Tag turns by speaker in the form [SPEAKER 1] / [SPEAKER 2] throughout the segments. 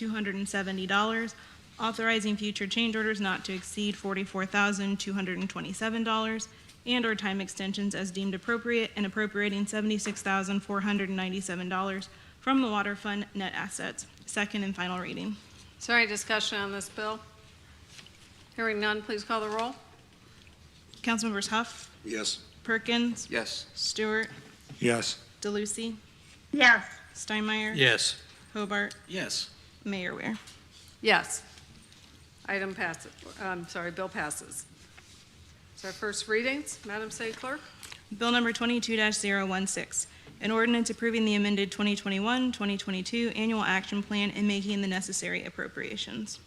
[SPEAKER 1] $442,270, authorizing future change orders not to exceed $44,227, and/or time extensions as deemed appropriate, and appropriating $76,497 from the Water Fund net assets. Second and final reading.
[SPEAKER 2] Is there any discussion on this bill? Hearing none, please call the roll.
[SPEAKER 1] Councilmembers Huff,
[SPEAKER 3] Yes.
[SPEAKER 1] Perkins,
[SPEAKER 3] Yes.
[SPEAKER 1] Stewart,
[SPEAKER 3] Yes.
[SPEAKER 1] DeLucy,
[SPEAKER 4] yes,
[SPEAKER 1] Steinmeier.
[SPEAKER 5] yes,
[SPEAKER 1] Hobart,
[SPEAKER 3] Yes.
[SPEAKER 1] Mayor Ware.
[SPEAKER 2] Yes. Item passes, I'm sorry, bill passes. It's our first readings. Madam City Clerk?
[SPEAKER 1] Bill number twenty-two 16 an ordinance approving the amended 2021-2022 annual action plan and making the necessary appropriations.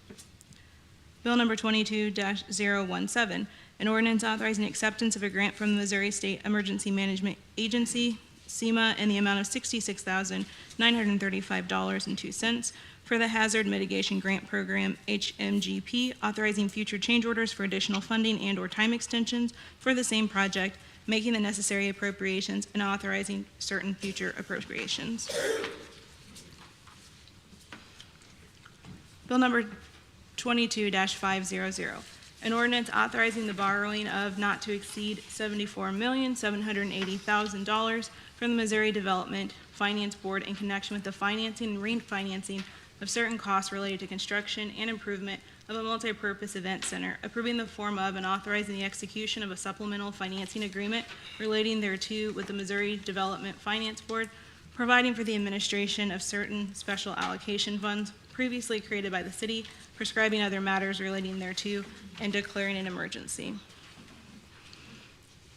[SPEAKER 1] Bill number twenty-two 17 an ordinance authorizing acceptance of a grant from the Missouri State Emergency Management Agency, SEMA, in the amount of sixty-six thousand, nine hundred and thirty-five dollars and two cents for the Hazard Mitigation Grant Program, HMGP, authorizing future change orders for additional funding and/or time extensions for the same project, making the necessary appropriations, and authorizing certain future appropriations. Bill number twenty-two five zero zero, an ordinance authorizing the borrowing of not to exceed seventy-four million, seven hundred and eighty thousand dollars from the Missouri Development Finance Board in connection with the financing and refinancing of certain costs related to construction and improvement of a multipurpose event center, approving the form of and authorizing the execution of a supplemental financing agreement relating thereto with the Missouri Development Finance Board providing for the administration of certain special allocation funds previously created by the city, prescribing other matters relating thereto, and declaring an emergency.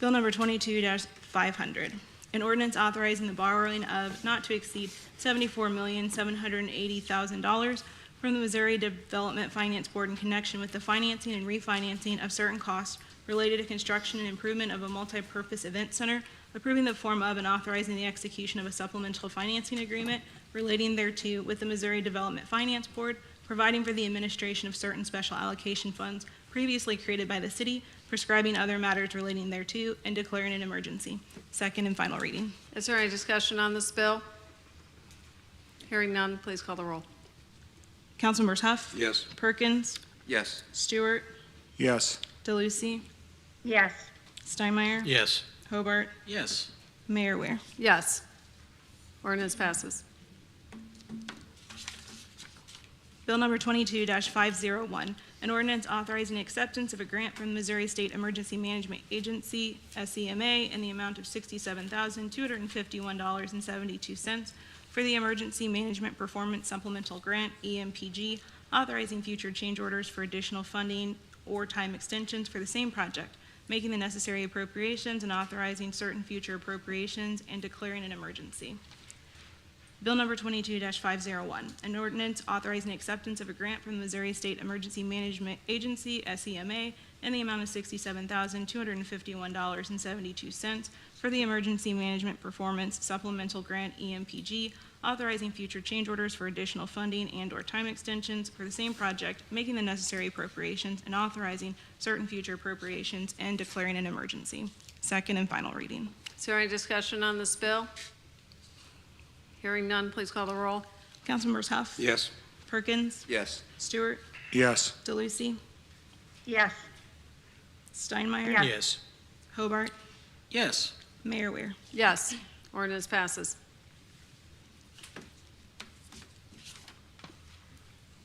[SPEAKER 1] Bill number twenty-two five hundred, an ordinance authorizing the borrowing of not to exceed seventy-four million, seven hundred and eighty thousand dollars from the Missouri Development Finance Board in connection with the financing and refinancing of certain costs related to construction and improvement of a multipurpose event center, approving the form of and authorizing the execution of a supplemental financing agreement relating thereto with the Missouri Development Finance Board, providing for the administration of certain special allocation funds previously created by the city, prescribing other matters relating thereto, and declaring an emergency. Second and final reading.
[SPEAKER 2] Is there any discussion on this bill? Hearing none, please call the roll.
[SPEAKER 1] Councilmembers Huff.
[SPEAKER 3] Yes.
[SPEAKER 1] Perkins.
[SPEAKER 3] Yes.
[SPEAKER 1] Stewart.
[SPEAKER 3] Yes.
[SPEAKER 1] DeLucy.
[SPEAKER 4] yes,
[SPEAKER 1] Steinmeier.
[SPEAKER 5] yes.
[SPEAKER 1] Hobart.
[SPEAKER 3] Yes.
[SPEAKER 1] Mayor Ware.
[SPEAKER 2] Yes. Ordinance passes.
[SPEAKER 1] Bill number twenty-two five zero one, an ordinance authorizing acceptance of a grant from the Missouri State Emergency Management Agency, SEMA, in the amount of sixty-seven thousand, two hundred and fifty-one dollars and seventy-two cents for the Emergency Management Performance Supplemental Grant, E EMPG, authorizing future change orders for additional funding or time extensions for the same project, making the necessary appropriations and authorizing certain future appropriations and declaring an emergency. Bill number twenty-two five zero one, an ordinance authorizing acceptance of a grant from the Missouri State Emergency Management Agency, SEMA, in the amount of sixty-seven thousand, two hundred and fifty-one dollars and seventy-two cents for the Emergency Management Performance Supplemental Grant, E EMPG, authorizing future change orders for additional funding and/or time extensions for the same project, making the necessary appropriations, and authorizing certain future appropriations and declaring an emergency. Second and final reading.
[SPEAKER 2] Is there any discussion on this bill? Hearing none, please call the roll.
[SPEAKER 1] Councilmembers Huff.
[SPEAKER 3] Yes.
[SPEAKER 1] Perkins.
[SPEAKER 3] Yes.
[SPEAKER 1] Stewart.
[SPEAKER 3] Yes.
[SPEAKER 1] DeLucy.
[SPEAKER 4] yes,
[SPEAKER 1] Steinmeier.
[SPEAKER 4] Yeah.
[SPEAKER 5] Yes.
[SPEAKER 1] Hobart.
[SPEAKER 3] Yes.
[SPEAKER 1] Mayor Ware.
[SPEAKER 2] Yes. Ordinance passes.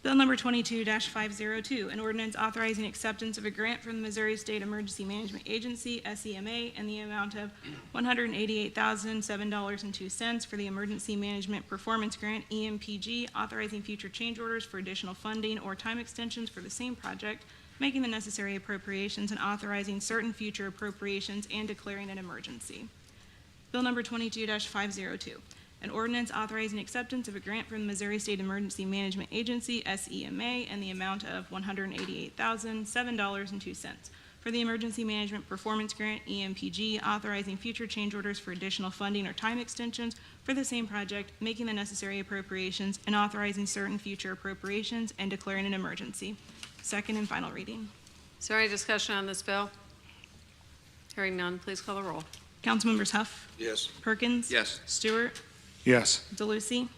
[SPEAKER 1] Bill number twenty-two five zero two, an ordinance authorizing acceptance of a grant from the Missouri State Emergency Management Agency, SEMA, in the amount of one hundred and eighty-eight thousand, seven dollars and two cents for the Emergency Management Performance Grant, E EMPG, authorizing future change orders for additional funding or time extensions for the same project, making the necessary appropriations and authorizing certain future appropriations and declaring an emergency. Bill number twenty-two five zero two, an ordinance authorizing acceptance of a grant from the Missouri State Emergency Management Agency, E SEMA, and the amount of one hundred and eighty-eight thousand, seven dollars and two cents for the Emergency Management Performance Grant, E EMPG, authorizing future change orders for additional funding or time extensions for the same project, making the necessary appropriations, and authorizing certain future appropriations and declaring an emergency. Second and final reading.
[SPEAKER 2] Is there any discussion on this bill? Hearing none, please call the roll.
[SPEAKER 1] Councilmembers Huff,
[SPEAKER 3] Yes.
[SPEAKER 1] Perkins.
[SPEAKER 3] Yes.
[SPEAKER 1] Stewart,
[SPEAKER 3] Yes.
[SPEAKER 1] DeLucy,